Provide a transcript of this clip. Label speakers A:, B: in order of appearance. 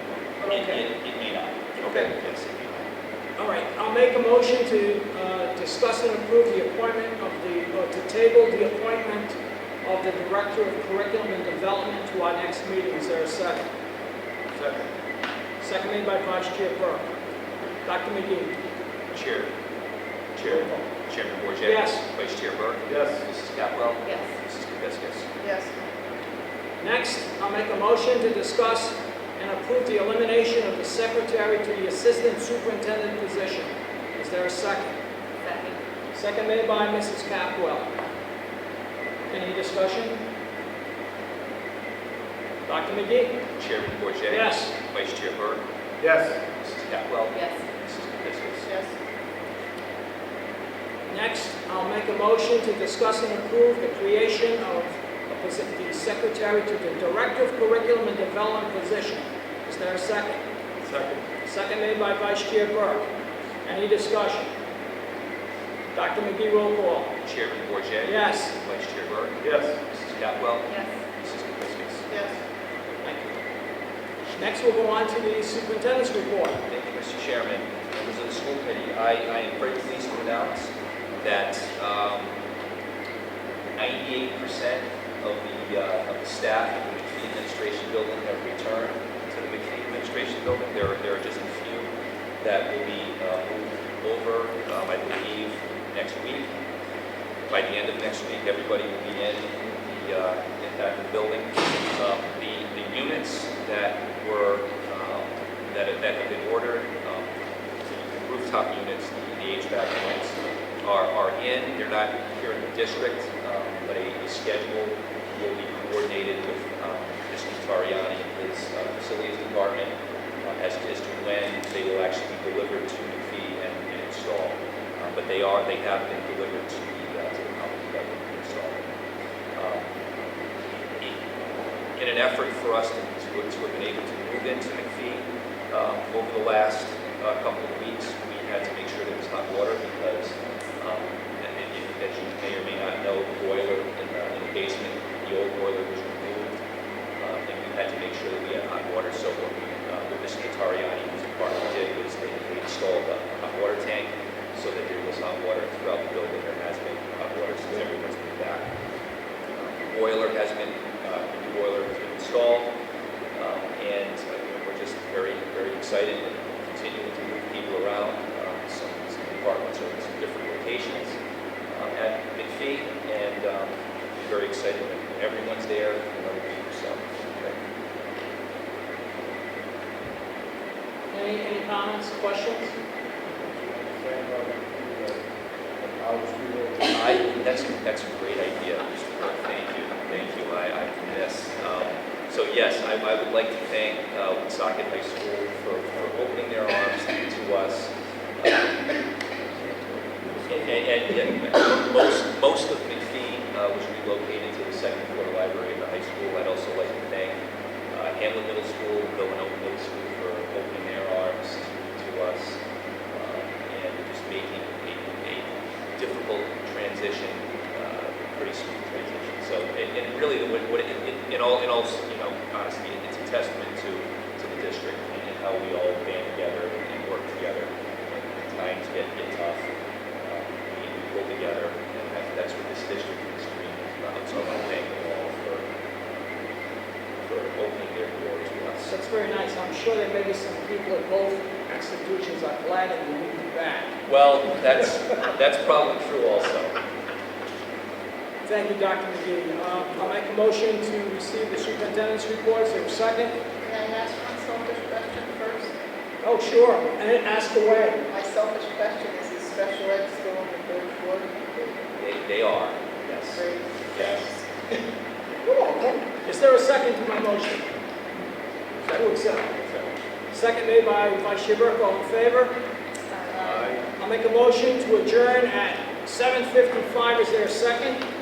A: It,
B: Okay.
A: it, it may not.
B: Okay.
A: Yes, it may
B: All right, I'll make a motion to uh, discuss and approve the appointment of the, or to table the appointment of the Director of Curriculum and Development to our next meeting. Is there a second?
C: Second.
B: Seconded by Vice Chair Burke. Dr. McGee?
A: not. Chair, Chair, Chairman Bourget.
B: Yes.
A: Vice Chair Burke.
C: Yes.
A: Mrs. Capwell.
D: Yes.
A: Mrs. Kapiskas.
D: Yes.
B: Next, I'll make a motion to discuss and approve the elimination of the Secretary to the Assistant Superintendent position. Is there a second?
D: Second.
B: Seconded by Mrs. Capwell. Any discussion? Dr. McGee?
A: Chairman Bourget.
B: Yes.
A: Vice Chair Burke.
C: Yes.
A: Mrs. Capwell.
D: Yes.
A: Mrs. Kapiskas.
D: Yes.
B: Next, I'll make a motion to discuss and approve the creation of a posi- the Secretary to the Director of Curriculum and Development position. Is there a second?
C: Second.
B: Seconded by Vice Chair Burke. Any discussion? Dr. McGee, roll call.
A: Chairman Bourget.
B: Yes.
A: Vice Chair Burke.
C: Yes.
A: Mrs. Capwell.
D: Yes.
A: Mrs. Kapiskas.
D: Yes.
B: Thank you. Next, we'll go on to the Superintendent's Report.
A: Thank you, Mr. Chairman, members of the school committee. I, I am very pleased to announce that um, ninety-eight percent of the, uh, of the staff in the McKinney Administration Building have returned to the McKinney Administration Building. There are, there are just a few that will be uh, moved over, um, I believe, next week. By the end of next week, everybody will be in the, uh, in that building. Um, The, the units that were, um, that that have been ordered, um, the rooftop units, the- the HVAC units are, are in, they're not here in the district, um, but a a schedule will be coordinated with um, Mr. Tariani and his uh, facilities department uh, as as to when they will actually be delivered to the fee and and installed. Uh, But they are, they have been delivered to the, uh, to the company that will be installed. Um, in- In an effort for us to, to to have been able to move into McPhee, um, over the last uh, couple of weeks, we had to make sure there was hot water because, um, and- and you- as you may or may not know, the boiler in the in the basement, the old boiler was removed. uh, And we had to make sure that we had hot water, so what we, uh, what Mr. Natariani, whose department did, was they they installed a hot water tank so that there was hot water throughout the building. There has been hot water since everyone's been back. Uh, Boiler has been, uh, the new boiler has been installed. Um, And uh, you know, we're just very, very excited and continuing to move people around. Um, Some some departments are in some different locations um, at McPhee, and um, very excited that everyone's there, you know, so. okay.
B: Any, any comments, questions?
C: I was reading.
A: I, that's, that's a great idea, Mr. Burke, thank you, thank you, I, I, yes. Um, So yes, I, I would like to thank uh, Woonsocket High School for, for opening their arms to us. Um, And, and, and most, most of McPhee uh, was relocated to the second floor library of the high school. I'd also like to thank uh, Hamlin Middle School, Villanova Middle School for opening their arms to us uh, and just making, making a difficult transition, uh, pretty smooth transition. So, and, and really, the- what, what, it- it- in all, in all, you know, honestly, it- it's a testament to, to the district and and how we all band together and work together. And When times get, get tough, uh, we we pull together, and that- that's what this district is doing. So I want to thank them all for, for opening their door to us.
B: That's very nice. I'm sure there may be some people at both institutions are glad that you moved it back.
A: Well, that's, that's probably true also.
B: Thank you, Dr. McGee. Uh, I'll make a motion to receive the superintendent's report. Is there a second?
D: Can I ask one selfish question first?
B: Oh, sure. And then ask away.
D: My selfish question is, is special ed still on the third floor?
A: They, they are, yes,
D: Great.
A: yes.
B: Is there a second to my motion? Who accept? Second made by Vice Chair Burke. All in favor?
D: Aye.
B: I'll make a motion to adjourn at 7:55. Is there a second?